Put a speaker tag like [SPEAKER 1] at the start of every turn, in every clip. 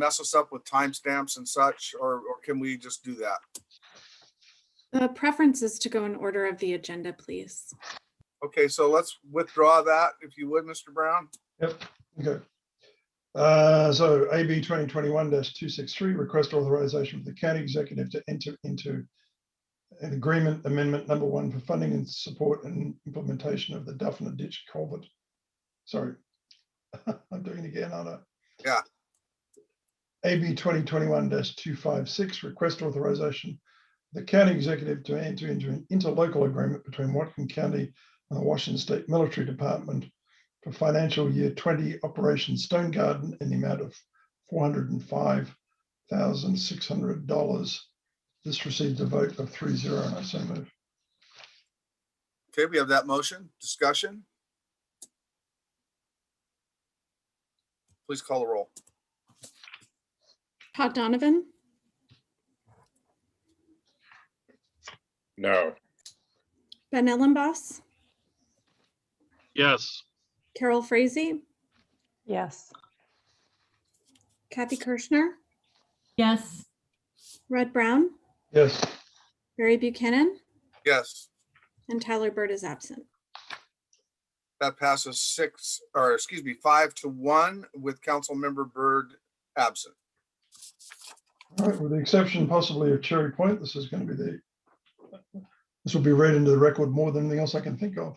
[SPEAKER 1] mess us up with timestamps and such, or, or can we just do that?
[SPEAKER 2] The preference is Uh, to go in order of the agenda, please.
[SPEAKER 1] Okay, so let's withdraw that, if you would, Mr. Brown.
[SPEAKER 3] Okay. Uh, So AB 2021-263, request authorization for the county executive to enter into an agreement amendment number one for funding and support and implementation of the Duffner Ditch Culvert. Sorry. I'm doing it again, aren't I?
[SPEAKER 1] Yeah.
[SPEAKER 3] AB 2021-256, request authorization, the county executive to enter into an interlocal agreement between Watkin County and the Washington State Military Department for financial year 20 Operation Stone Garden in the amount of $405,600. This received a vote of 3-0 and I so move.
[SPEAKER 1] Okay, we have that motion, discussion. Please call the roll.
[SPEAKER 2] Todd Donovan,
[SPEAKER 4] No.
[SPEAKER 2] Ben Ellenboss,
[SPEAKER 4] Yes.
[SPEAKER 2] Carol Frazee,
[SPEAKER 5] Yes.
[SPEAKER 2] Kathy Kirschner,
[SPEAKER 6] Yes,
[SPEAKER 2] Red Brown,
[SPEAKER 3] Yes,
[SPEAKER 2] Barry Buchanan,
[SPEAKER 1] Yes,
[SPEAKER 2] and Tyler Bird is absent.
[SPEAKER 1] that passes six, or excuse me, five to one with Councilmember Byrd absent.
[SPEAKER 3] all right, with the exception possibly of Cherry Point, this is going to be the, this will be read into the record more than anything else I can think of.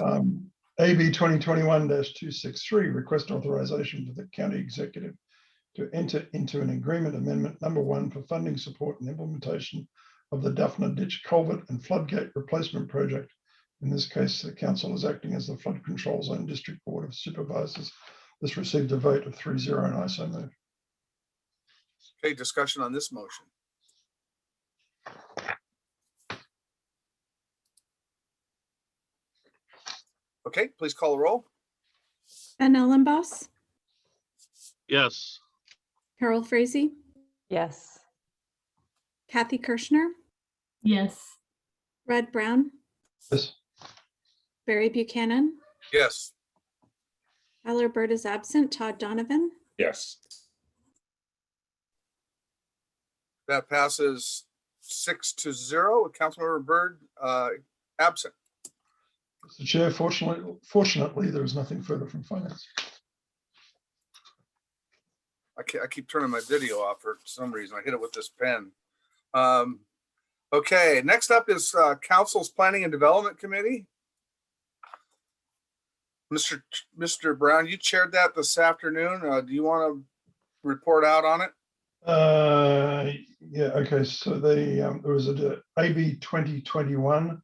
[SPEAKER 3] Um, AB 2021-263, request authorization for the county executive to enter into an agreement amendment number one for funding support and implementation of the Daphne Ditch Culvert and Floodgate Replacement Project. In this case, the council is acting as the flood control zone district board of supervisors. This received a vote of 3-0 and I so move.
[SPEAKER 1] Okay, discussion on this motion. Okay, please call the roll.
[SPEAKER 2] Ben Ellenboss,
[SPEAKER 4] Yes.
[SPEAKER 2] Carol Frazee,
[SPEAKER 5] Yes.
[SPEAKER 2] Kathy Kirschner,
[SPEAKER 6] yes,
[SPEAKER 2] Red Brown,
[SPEAKER 3] Yes.
[SPEAKER 2] Barry Buchanan,
[SPEAKER 1] Yes.
[SPEAKER 2] Tyler Bird is absent. Todd Donovan,
[SPEAKER 4] Yes.
[SPEAKER 1] That passes six to zero. with Councilmember Byrd, uh, absent.
[SPEAKER 3] Mr. Chair, fortunately, fortunately, there is nothing further from finance.
[SPEAKER 1] I ca- I keep turning my video off for some reason. I hit it with this pen. Um, okay, next up is, uh, Council's Planning and Development Committee. Mr. Ch- Mr. Brown, you chaired that this afternoon. Uh, do you want to report out on it?
[SPEAKER 3] Uh, yeah, okay, so the, um, there was a d- AB twenty twenty-one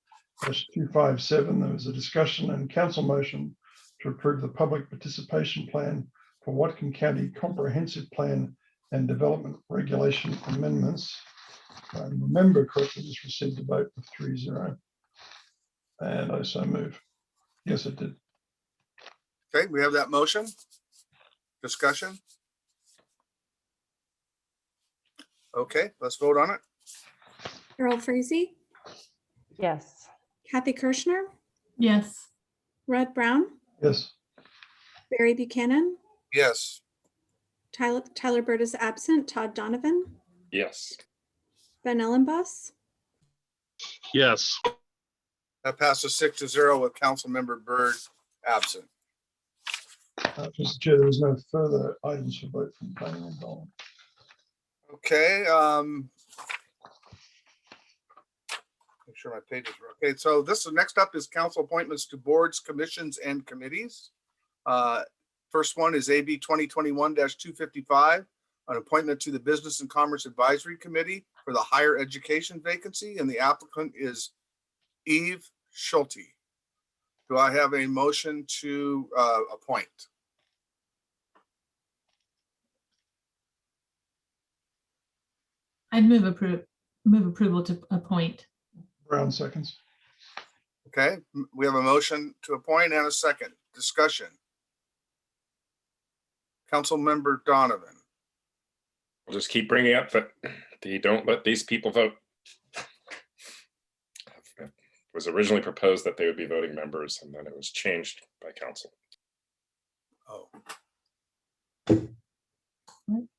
[SPEAKER 3] two five seven, there was a discussion and council motion to approve the public participation plan for Watkin County Comprehensive Plan and Development Regulation Amendments. If I remember correctly, this received a vote of three zero. And I so move. Yes, it did.
[SPEAKER 1] Okay, we have that motion. Discussion. Okay, let's vote on it.
[SPEAKER 2] Carol Frazee,
[SPEAKER 5] Yes.
[SPEAKER 2] Kathy Kirschner,
[SPEAKER 6] yes,
[SPEAKER 2] Red Brown,
[SPEAKER 3] Yes,
[SPEAKER 2] Barry Buchanan,
[SPEAKER 1] Yes.
[SPEAKER 2] Tyler, Tyler Bird is absent. Todd Donovan,
[SPEAKER 4] Yes.
[SPEAKER 2] Ben Ellenboss,
[SPEAKER 4] Yes.
[SPEAKER 1] That passes six to zero with Councilmember Byrd absent.
[SPEAKER 3] uh, Mr. Chair, there was no further items for vote from planning and development.
[SPEAKER 1] Okay, um. Make sure my pages are, okay, so this, is next up is council appointments to boards, commissions, and committees. Uh, First one is AB twenty twenty-one two fifty-five, an appointment to the Business and Commerce Advisory Committee for the higher education vacancy, and the applicant is Eve Schulte. Do I have a motion to uh, appoint?
[SPEAKER 6] I'd move approve, move approval to appoint.
[SPEAKER 3] Brown seconds.
[SPEAKER 1] Okay, m- we have a motion to appoint and a second discussion. Councilmember Donovan,
[SPEAKER 7] I'll just keep bringing up that they don't let these people vote. It Was originally proposed that they would be voting members and then it was changed by council.
[SPEAKER 1] oh.
[SPEAKER 6] Right.